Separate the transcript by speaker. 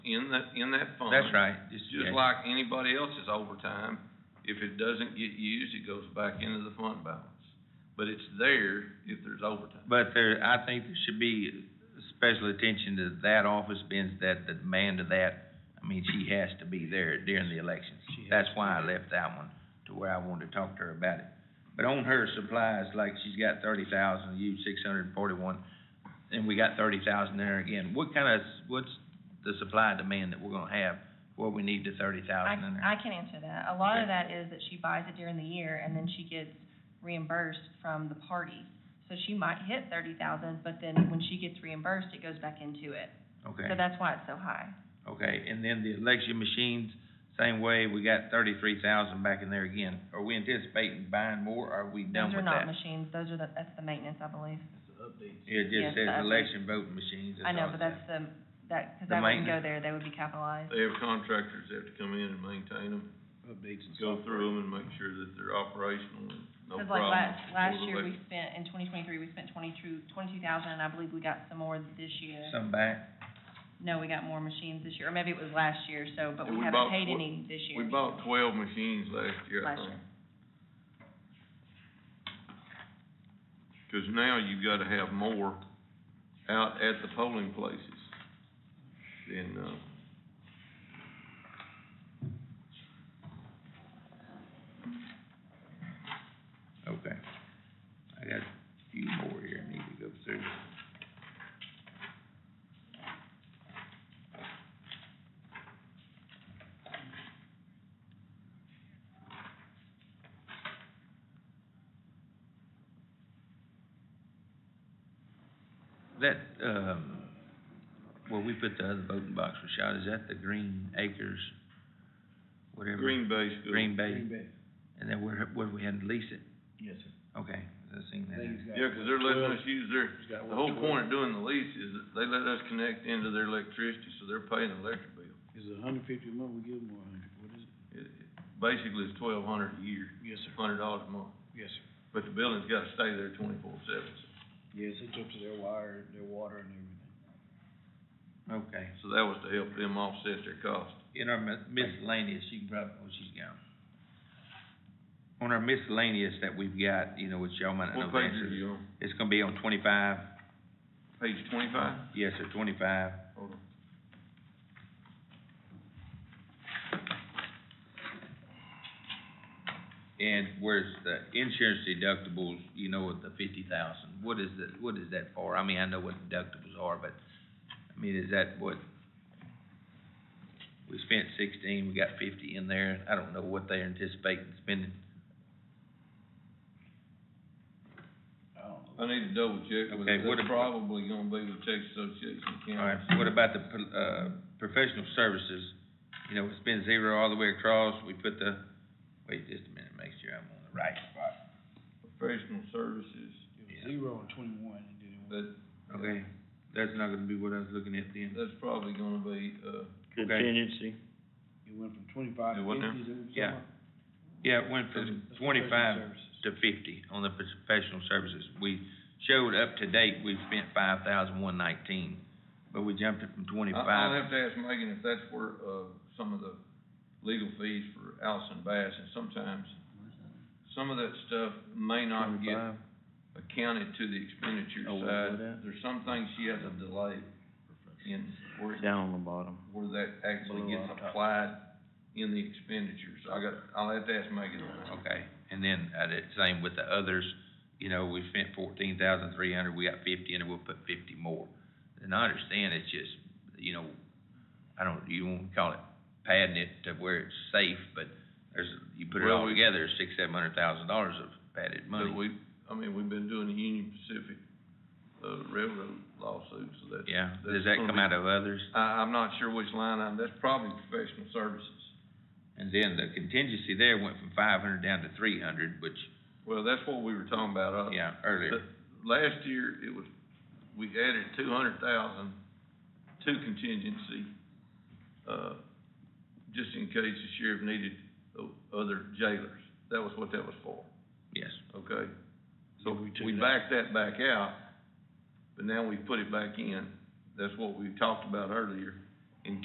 Speaker 1: in that, in that fund.
Speaker 2: That's right.
Speaker 1: It's just
Speaker 2: yeah.
Speaker 1: like anybody else's overtime, if it doesn't get used, it goes back into the fund balance. But it's there if there's overtime.
Speaker 2: But there, I think there should be special attention to that office, being that the demand of that, I mean, she has to be there during the elections. That's why I left that one, to where I wanted to talk to her about it. But on her supplies, like she's got thirty thousand, you six hundred and forty-one, and we got thirty thousand there again. What kind of, what's the supply and demand that we're gonna have where we need the thirty
Speaker 3: I,
Speaker 2: thousand in there?
Speaker 3: I can answer that. A lot of that is that she buys it during the year and then she gets reimbursed from the party. So she might hit thirty thousand, but then when she gets reimbursed, it goes back into it.
Speaker 2: Okay.
Speaker 3: So that's why it's so high.
Speaker 2: Okay, and then the election machines, same way, we got thirty-three thousand back in there again. Are we anticipating buying more, or are we done with
Speaker 3: Those are
Speaker 2: that?
Speaker 3: not machines, those are the, that's the maintenance, I believe.
Speaker 2: It
Speaker 3: yes,
Speaker 2: just says
Speaker 3: the updates.
Speaker 2: election voting machines.
Speaker 3: I know,
Speaker 2: all it
Speaker 3: but
Speaker 2: says.
Speaker 3: that's the, that, cause
Speaker 2: The
Speaker 3: that wouldn't go
Speaker 2: maintenance.
Speaker 3: there, they would be capitalized.
Speaker 1: They have contractors that have to come in and maintain them,
Speaker 4: Updates and
Speaker 1: go
Speaker 4: stuff.
Speaker 1: through them and make sure that they're operational and no
Speaker 3: Cause
Speaker 1: problems.
Speaker 3: like last, last
Speaker 1: before the
Speaker 3: year, we
Speaker 1: election.
Speaker 3: spent, in twenty twenty-three, we spent twenty-two, twenty-two thousand, and I believe we got some more this year.
Speaker 2: Some back,
Speaker 3: No, we got more machines this year, or maybe it was last year, so, but
Speaker 1: Yeah,
Speaker 3: we
Speaker 1: we
Speaker 3: haven't
Speaker 1: bought-
Speaker 3: paid
Speaker 1: we-
Speaker 3: any this year.
Speaker 1: We bought twelve machines last year, I
Speaker 3: Last
Speaker 1: think.
Speaker 3: year.
Speaker 1: Cause now you've gotta have more out at the polling places than, uh,
Speaker 2: okay. I got a few more here I need to go through. That, um, where we put the other voting box, Rashad, is that the Green Acres, whatever?
Speaker 1: Green Bay School.
Speaker 2: Green Bay,
Speaker 4: Green Bay.
Speaker 2: and then where, where we had to lease it?
Speaker 4: Yes, sir.
Speaker 2: Okay, I seen that.
Speaker 4: I think he's got-
Speaker 1: Yeah, cause they're letting
Speaker 4: Well,
Speaker 1: us use their,
Speaker 4: he's got
Speaker 1: the whole
Speaker 4: one-
Speaker 1: point of doing the lease is that they let us connect into their electricity, so they're paying the electric bill.
Speaker 4: Is it a hundred fifty a month, we give them a hundred, what is it?
Speaker 1: It, it, basically it's twelve hundred a year,
Speaker 4: Yes, sir,
Speaker 1: hundred dollars a month,
Speaker 4: yes, sir.
Speaker 1: but the building's gotta stay there twenty-four seven,
Speaker 4: Yes, it's up to their wire, their water and everything.
Speaker 2: Okay.
Speaker 1: so that was to help them offset their cost.
Speaker 2: In our mis- miscellaneous, you can probably, oh, she's gone. On our miscellaneous that we've got, you know, which y'all might not know
Speaker 1: What
Speaker 2: the
Speaker 1: page
Speaker 2: answer.
Speaker 1: are
Speaker 2: to.
Speaker 1: you on?
Speaker 2: It's gonna be on twenty-five,
Speaker 1: Page twenty-five?
Speaker 2: yes, sir, twenty-five.
Speaker 1: Hold on.
Speaker 2: And where's the insurance deductibles, you know, with the fifty thousand, what is that, what is that for? I mean, I know what deductibles are, but, I mean, is that what? We spent sixteen, we got fifty in there, I don't know what they're anticipating spending.
Speaker 4: I don't know.
Speaker 1: I need to double check, but
Speaker 2: Okay, what
Speaker 1: that's
Speaker 2: ab-
Speaker 1: probably gonna be with Texas Association of
Speaker 2: All right,
Speaker 1: Counties.
Speaker 2: what about the, pro- uh, professional services? You know, it's been zero all the way across, we put the, wait just a minute, make sure I'm on the right spot.
Speaker 1: Professional services,
Speaker 4: It
Speaker 2: Yeah.
Speaker 4: was zero and twenty-one, and then it went.
Speaker 1: that,
Speaker 2: Okay, that's not gonna be what I was looking at then.
Speaker 1: that's probably gonna be, uh,
Speaker 5: contingency.
Speaker 4: It went from twenty-five
Speaker 1: It
Speaker 4: to
Speaker 1: wasn't
Speaker 4: fifty,
Speaker 1: there?
Speaker 4: is that what you're
Speaker 2: Yeah.
Speaker 4: talking about?
Speaker 2: Yeah, it went
Speaker 4: That's-
Speaker 2: from
Speaker 4: that's professional
Speaker 2: twenty-five
Speaker 4: services.
Speaker 2: to fifty on the professional services. We showed up to date, we spent five thousand one nineteen, but we jumped it from
Speaker 1: I, I'll
Speaker 2: twenty-five.
Speaker 1: have to ask Megan if that's where, uh, some of the legal fees for Allison Bass, and sometimes some of that stuff may not get
Speaker 2: 25.
Speaker 1: accounted to the expenditure
Speaker 5: Oh, what was
Speaker 1: side.
Speaker 5: that?
Speaker 1: There's some things she has to delay in where,
Speaker 5: Down on the bottom.
Speaker 1: where that actually
Speaker 5: Below
Speaker 1: gets
Speaker 5: our top.
Speaker 1: applied in the expenditure. So I got, I'll have to ask Megan on that.
Speaker 2: Okay, and then, uh, the same with the others, you know, we spent fourteen thousand three hundred, we got fifty, and we'll put fifty more. And I understand it's just, you know, I don't, you won't call it padding it to where it's safe, but there's, you put it
Speaker 1: Well,
Speaker 2: all
Speaker 1: we-
Speaker 2: together, it's six, seven hundred thousand dollars of padded
Speaker 1: But
Speaker 2: money.
Speaker 1: we, I mean, we've been doing the Union Pacific, uh, Railroad lawsuit, so that's.
Speaker 2: Yeah, does
Speaker 1: that's
Speaker 2: that
Speaker 1: gonna
Speaker 2: come
Speaker 1: be-
Speaker 2: out of others?
Speaker 1: I, I'm not sure which line item, that's probably professional services.
Speaker 2: And then the contingency there went from five hundred down to three hundred, which,
Speaker 1: Well, that's what we were talking about, uh.
Speaker 2: yeah, earlier.
Speaker 1: the- Last year, it was, we added two hundred thousand to contingency, uh, just in case the sheriff needed o- other jailers. That was what that was for.
Speaker 2: Yes,
Speaker 1: okay? So
Speaker 4: Yeah, we took
Speaker 1: we
Speaker 4: it out.
Speaker 1: backed that back out, but now we put it back in. That's what we talked about earlier.